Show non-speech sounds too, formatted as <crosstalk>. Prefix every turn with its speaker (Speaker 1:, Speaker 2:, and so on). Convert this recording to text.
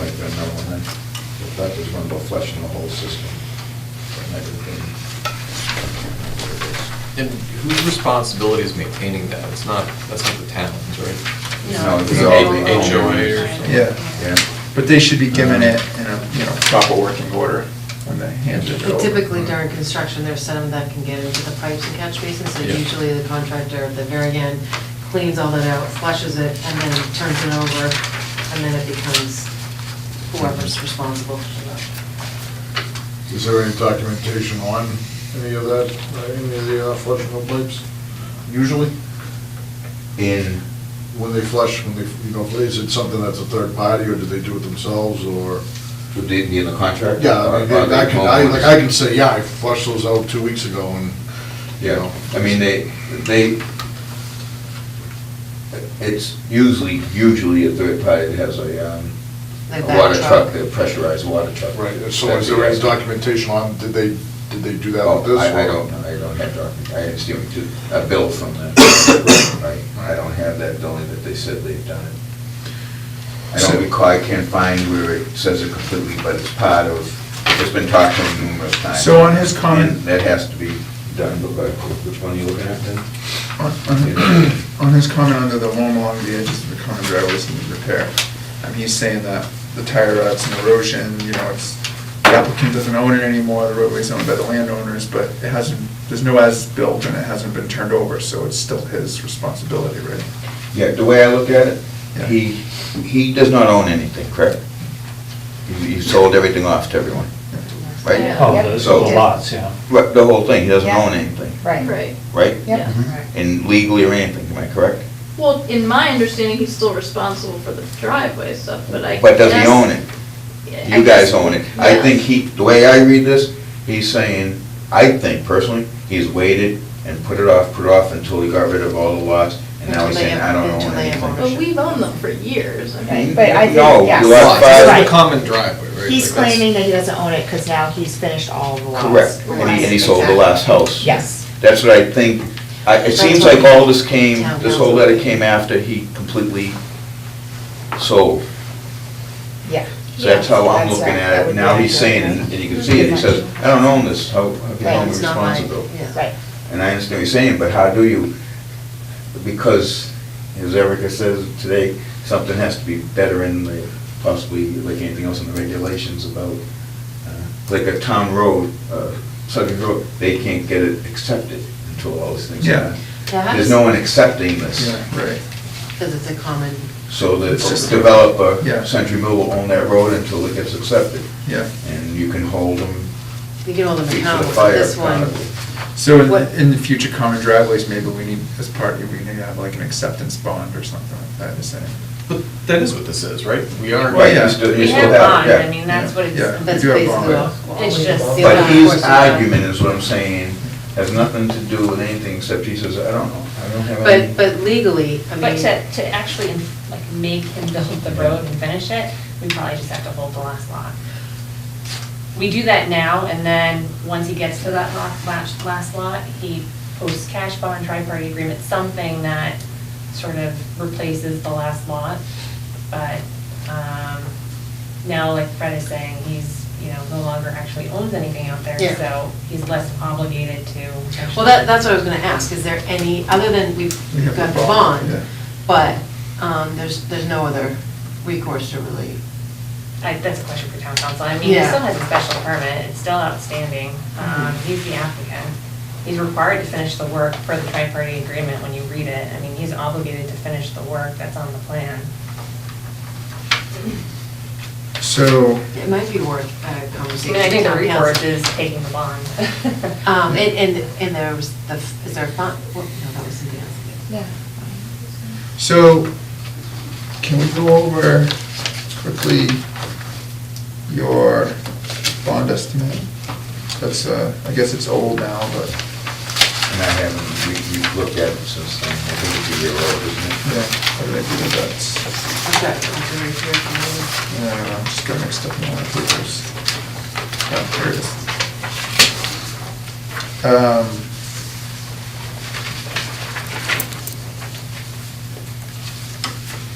Speaker 1: element that is going to go flush in the whole system and everything.
Speaker 2: And whose responsibility is maintaining that? It's not, that's not the town's, right?
Speaker 1: No,
Speaker 2: it's all the HOA or something.
Speaker 3: Yeah.
Speaker 1: Yeah.
Speaker 3: But they should be given it in a, you know, proper working order when they hand it
Speaker 4: But
Speaker 3: over.
Speaker 4: Typically during construction, there's some that can get into the pipes and catch basins, so
Speaker 2: Yeah.
Speaker 4: usually the contractor at the very end cleans all that out, flushes it, and then turns it over, and then it becomes whoever's responsible for that.
Speaker 5: Is there any documentation on any of that, uh, any of the uh, flushing of pipes? Usually,
Speaker 1: In,
Speaker 5: when they flush, when they, you know, is it something that's a third party, or do they do it themselves, or?
Speaker 1: would they be in the contract?
Speaker 5: Yeah, I mean,
Speaker 1: Or- or
Speaker 5: I
Speaker 1: the
Speaker 5: can, I, like, I can
Speaker 1: homeowners?
Speaker 5: say, yeah, I flushed those out two weeks ago, and, you
Speaker 1: Yeah,
Speaker 5: know.
Speaker 1: I mean, they, they, it's usually, usually a third party that has a, um,
Speaker 4: Like
Speaker 1: a
Speaker 4: that
Speaker 1: water
Speaker 4: truck.
Speaker 1: truck, a pressurized water truck.
Speaker 5: Right, so is there any documentation on, did they, did they do that
Speaker 1: Oh,
Speaker 5: with this?
Speaker 1: I, I
Speaker 5: or-
Speaker 1: don't, know. I don't have document, I just give it to, a bill from <coughs> them. Right, I don't have that billing that they said they've done it. I
Speaker 3: So-
Speaker 1: don't recall, I can't find where it says it completely, but it's part of, it's been talked about numerous times.
Speaker 3: So on his comment-
Speaker 1: And That has to be done, but which one are you looking at then?
Speaker 3: On- On on his comment under the home along the edges of the common driveways need repair, um, he's saying that the tire ruts and erosion, you know, it's, the applicant doesn't own it anymore, the roadway's owned by the landowners, but it hasn't, there's no as-built and it hasn't been turned over, so it's still his responsibility, right?
Speaker 1: Yeah, the way I look at it,
Speaker 3: Yeah.
Speaker 1: he, he does not own anything, correct? He he sold everything off to everyone, right?
Speaker 3: Mm-hmm.
Speaker 6: Yeah.
Speaker 7: Oh,
Speaker 6: Yep.
Speaker 7: those
Speaker 1: So-
Speaker 7: little lots, yeah.
Speaker 1: Right, The whole thing, he doesn't
Speaker 6: Yeah.
Speaker 1: own anything,
Speaker 6: Right.
Speaker 1: right?
Speaker 6: Yeah.
Speaker 1: And legally or anything, am I correct?
Speaker 8: Well, in my understanding, he's still responsible for the driveway stuff, but I guess.
Speaker 1: But does he own it?
Speaker 8: I
Speaker 1: You guys
Speaker 8: guess-
Speaker 1: own it. I
Speaker 8: Yeah.
Speaker 1: think he, the way I read this, he's saying, I think personally, he's waited and put it off, put it off until he got rid of all the lots, and now
Speaker 4: Until
Speaker 1: he's
Speaker 4: they
Speaker 1: saying,
Speaker 4: have-
Speaker 1: I don't
Speaker 4: until
Speaker 1: own
Speaker 4: they have
Speaker 1: anything. Mm-hmm.
Speaker 8: But we've owned them for years, I mean.
Speaker 6: Right, but I think,
Speaker 1: No,
Speaker 6: yes.
Speaker 1: you have
Speaker 6: Right.
Speaker 1: five-
Speaker 2: It's
Speaker 6: Right.
Speaker 2: a common driveway, right?
Speaker 6: He's
Speaker 2: Like, that's-
Speaker 6: claiming that he doesn't own it because now he's finished all the lots.
Speaker 1: Correct, and he, and he sold the last house.
Speaker 6: Yes.
Speaker 1: That's what I think, I, it seems like all this came, this whole letter came after he completely sold.
Speaker 6: Yeah.
Speaker 1: So that's how I'm looking
Speaker 6: that
Speaker 1: at
Speaker 6: would
Speaker 1: it.
Speaker 6: be
Speaker 1: Now he's
Speaker 6: accurate.
Speaker 1: saying, and you can see it, he says, I don't own this, how, how can I own
Speaker 6: Right,
Speaker 1: the
Speaker 4: It's not my-
Speaker 1: responsibility?
Speaker 4: yeah.
Speaker 6: Right,
Speaker 1: And I understand what you're saying, but how do you, because, as Erica says today, something has to be better in the, possibly, like anything else in the regulations about, uh, like a town road, uh, Southern Road, they can't get it accepted until all those things are done.
Speaker 4: Yeah. Yeah,
Speaker 1: There's no one accepting this,
Speaker 3: Yeah, right.
Speaker 4: Because it's a common,
Speaker 1: so the
Speaker 3: It's just- Yeah.
Speaker 1: developer, Century Mill will own that road until it gets accepted,
Speaker 3: Yeah.
Speaker 1: and you can hold them
Speaker 4: you can hold them
Speaker 1: feet to
Speaker 4: accountable
Speaker 1: the
Speaker 4: for
Speaker 1: fire.
Speaker 4: this one.
Speaker 1: accountable.
Speaker 3: So in,
Speaker 4: What-
Speaker 3: the- in the future common driveways, maybe we need, as part, we need to have like an acceptance bond or something like that, is it?
Speaker 2: But that is what this is, right? We are.
Speaker 1: Right,
Speaker 3: Yeah.
Speaker 1: you still, you
Speaker 3: We
Speaker 1: still
Speaker 3: have
Speaker 1: have,
Speaker 3: bond,
Speaker 1: yeah.
Speaker 3: I mean, that's what it's- Yeah, we
Speaker 4: That's
Speaker 3: do have
Speaker 4: basically
Speaker 3: bond.
Speaker 4: what.
Speaker 6: It's just the
Speaker 1: But
Speaker 4: he's
Speaker 1: his argument is what I'm saying, has nothing to do with anything except he says, I don't know, I don't have any.
Speaker 4: But, but legally, I mean.
Speaker 9: But to, to actually like make him build the road and finish it, we probably just have to hold the last lot. We do that now, and then, once he gets to that lot, last, last lot, he posts cash bond, tri-party agreement, something that sort of replaces the last lot. But, um, now, like Fred is saying, he's, you know, no longer actually owns anything out there,
Speaker 4: Yeah.
Speaker 9: so he's less obligated to. actually-
Speaker 4: Well, that, that's what I was gonna ask, is there any, other than we've
Speaker 3: We have
Speaker 4: got
Speaker 3: a
Speaker 4: the
Speaker 3: bond, yeah.
Speaker 4: bond, but, um, there's, there's no other recourse to really,
Speaker 9: I- That's a question for town council. I mean, he
Speaker 4: Yeah. Mm-hmm.
Speaker 9: still has a special permit, it's still outstanding. Um, He's the applicant. He's required to finish the work per the tri-party agreement when you read it. I mean, he's obligated to finish the work that's on the plan.
Speaker 3: So,
Speaker 4: it might be worth a
Speaker 9: I
Speaker 4: conversation.
Speaker 9: mean, I think the
Speaker 4: with town
Speaker 9: recourse
Speaker 4: council.
Speaker 9: is taking the bond.
Speaker 4: <laughs> Um, and, and, and there was the, is there a font, well, no, that was something else.
Speaker 6: yeah.
Speaker 3: so can we go over quickly your bond estimate? That's, uh, I guess it's old now, but,
Speaker 1: And I haven't, we, we've looked at it since then, I think it's a year old, isn't
Speaker 3: yeah,
Speaker 1: it?
Speaker 3: I don't think that's,
Speaker 4: I've got, I've got it here for
Speaker 3: I don't know, just got mixed up in my papers. Oh, here it is. Um,